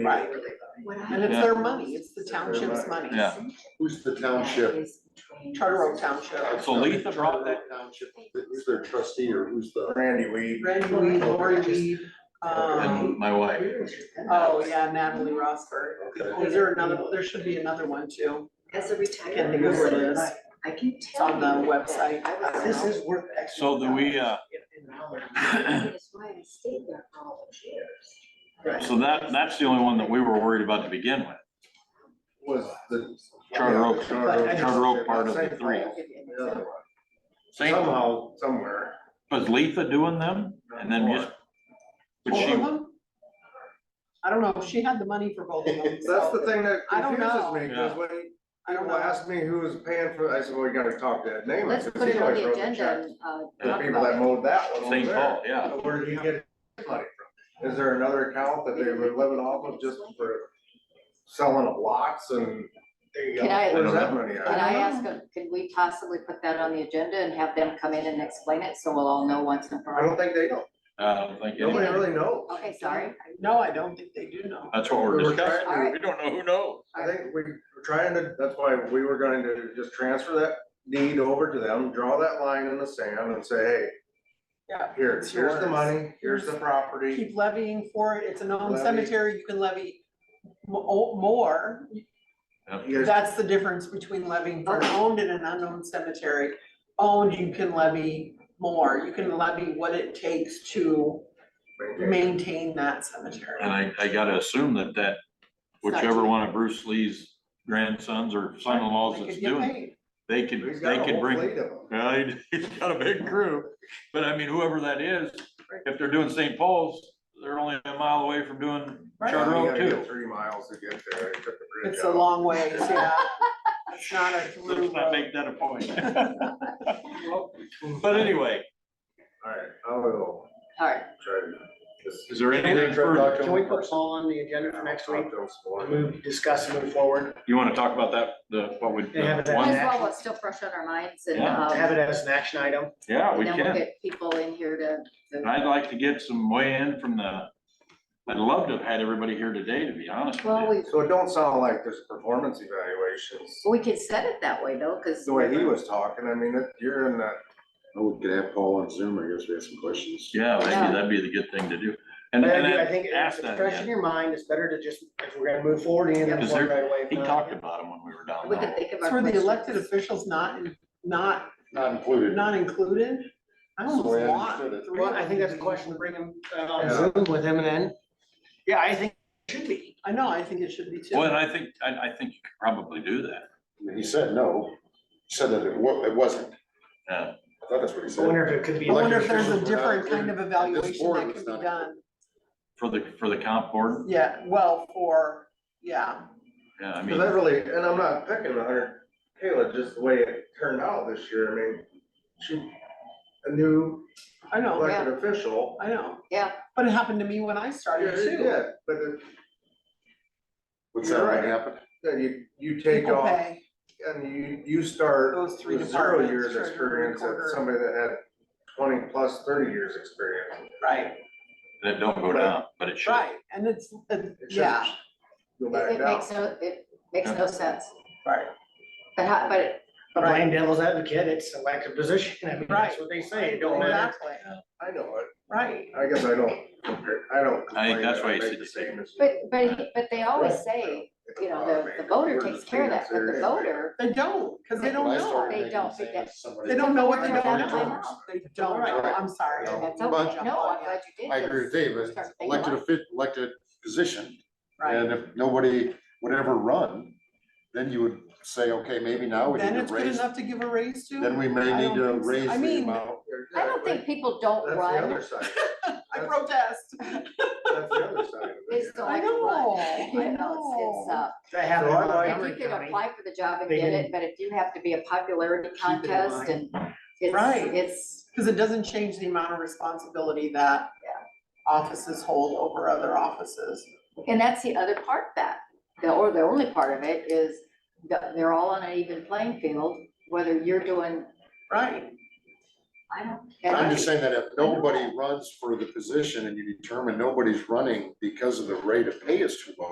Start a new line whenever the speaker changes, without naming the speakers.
Right. And it's
Yeah.
their money, it's the township's money.
Yeah.
Who's the township?
Charter Oak Township.
So Letha brought that,
Township, who's their trustee or who's the?
Randy Weed.
Randy Weed, Lori Weed, um,
and my wife,
oh yeah, Natalie Rosberg. Is there another, there should be another one too.
As a
I can't think of where it
retired,
is.
I can
It's
tell
on
you.
the website. I don't
This
know.
is worth extra.
so do we, uh,
That's why I stayed there for all those years.
so that, that's the only one that we were worried about to begin with.
Was the.
Charter Oak,
But I-
Charter Oak part of the three. Same,
Somehow, somewhere.
was Letha doing them? And then just, but
Both
she,
of them? I don't know, she had the money for both of them,
That's the
so
thing that
I don't
confuses
know.
me,
Yeah.
because when
I don't
people
know.
ask me who was paying for, I said, well, you gotta talk to Ed Naaman.
Let's
'cause
put
he
it on
always
the
wrote the
agenda
checks.
and, uh,
The
talk
people that
about it.
mowed that one over
St.
there.
Paul, yeah.
But Where did he get his money from? Is there another account that they were living off of just for selling of lots and?
Can I-
Where's that money
Can
at?
I ask, them, can we possibly put that on the agenda and have them come in and explain it, so we'll all know once and
I
for all?
don't think they know.
uh, thank
Nobody
you.
really knows.
Okay, sorry.
No, I don't think they do know.
That's what we're
We were
discussing.
trying to-
We don't know who knows.
I think we were trying to, that's why we were going to just transfer that deed over to them, draw that line in the sand and say, hey,
Yeah.
here,
It's
here's the
yours.
money, here's the property.
Keep levying for it, it's a known
Levy.
cemetery, you can levy mo- more,
You guys-
That's the difference between levying for an owned and an unknown cemetery. Owned, you can levy more, you can levy what it takes to maintain that cemetery.
And I, I gotta assume that
It's
that,
not
whichever
cheap.
one of Bruce Lee's grandsons or son-in-laws
They
that's
could get
doing, it,
paid.
they could,
He's got
they
a
could
whole
bring.
fleet of 'em.
Yeah, he- he's got a big crew, but I mean, whoever that is, if they're doing St. Paul's, they're only a mile away from doing
Right.
Charter
You
Oak
gotta get
too.
Three miles to get there. They took the bridge
It's a
out.
long way, yeah. It's not a through
Let's not
road.
make that a point. But anyway,
All right, I will
All right,
try to. just-
is there anything further?
Can we put Paul on the agenda for next week?
Talk to him some more.
Move, discuss and move forward,
You wanna talk about that, the, what we,
They have
the
it
might as
one,
at-
well, it's still fresh on our minds and,
Yeah.
um,
have it as an action item.
yeah, we
then we'll
can.
get people in here to.
And I'd like to get some way in from the, I'd love to have had everybody here today, to be honest
Well,
with you.
we,
So it don't sound like there's performance evaluations.
we can set it that way though, because.
The way he was talking, I mean, it- you're in that
Oh, we could have Paul on Zoom, I guess we have some questions.
Yeah,
Yeah.
maybe that'd be the good thing to do. And,
But I
and
do- I
then
think
ask
it's
that,
fresh in
yeah.
your mind, it's better to just, if we're gonna move forward, you
Is
know,
there-
right away. Uh, if
he
not-
talked about them when we were down
We could
there.
think of
It's
our.
for the
questions.
elected officials not, not,
Not included.
not included. I almost
So I
want
understood it.
three
Well, I
of
think
them
that's a
to be-
question to bring him uh, on
Yeah.
Zoom with him and then, yeah, I think it should be.
I know, I think it should be too.
Well, and I think, I, I think you could probably do that.
He said no, He said that it wa, it wasn't,
Yeah.
I thought that's what he
I
said.
wonder if it could be.
I wonder if
elected
there's a
officials without-
different kind of evaluation
board
that
was
can
not-
be done.
For the, for the comp board,
Yeah, well, for, yeah,
yeah, I
Cause
mean,
I really, and I'm not picking on her, Kayla, just the way it turned out this year, I mean, she, a new
I know,
elected official.
I know.
Yeah.
But it happened to me when I started too.
Yeah, but it-
What's that, what
Right.
happened?
then you, you take
People
off
pay
and you, you start
those three
with zero
departments,
years
treasurer,
experience at
recorder,
somebody that had twenty plus thirty years experience.
right,
that don't go down, but it should.
right, and it's, uh,
It should
yeah,
Go
It,
back
it
down.
makes no, it makes no sense,
right,
but how, but
But playing devil's advocate, it's elected position, I mean, that's what they say, it don't matter.
exactly,
I know it,
right.
I guess I don't, compare- I don't.
I think
complain
that's
that
why
I
you
make
said
the
you take-
same as-
but, but, he- but they always
Right.
say, you know,
Uh,
the, the voter takes care of that, but the voter,
They don't, because they don't
When I
know,
started
They
making
don't
the same
forget.
as somebody-
they don't know what they
Right.
don't
Right.
know, they don't,
Right.
know. I'm sorry.
Right.
that's
But-
okay, no, I'm glad you did.
I agree with Dave, it's
Start thinking
elected,
about
offi- elected position,
Right,
and if nobody would ever run, then you would say, okay, maybe now we
then
need
it's
to
good
raise,
enough to give a raise to?
then we may
I
need
don't
to
think so.
raise
I
the
mean-
amount.
I don't think people don't
Oh, That's the other
run,
side,
I protest.
that's the other side of it.
they still
I
like
know, I
run, you know, it's,
know.
it's, uh,
That happened
So
in
I like-
if
Montgomery
you can
County.
apply for the job and
They
get it,
didn't
but if you have to be a popularity
keep it in
contest and
Right.
it's, it's,
Because it doesn't change the amount of responsibility that offices hold over other offices.
and that's the other part that, the, or the only part of it is that they're all on an even playing field, whether you're doing
Right,
I don't.
I'm just saying that if nobody runs for the position and you determine nobody's running because of the rate of pay is too low,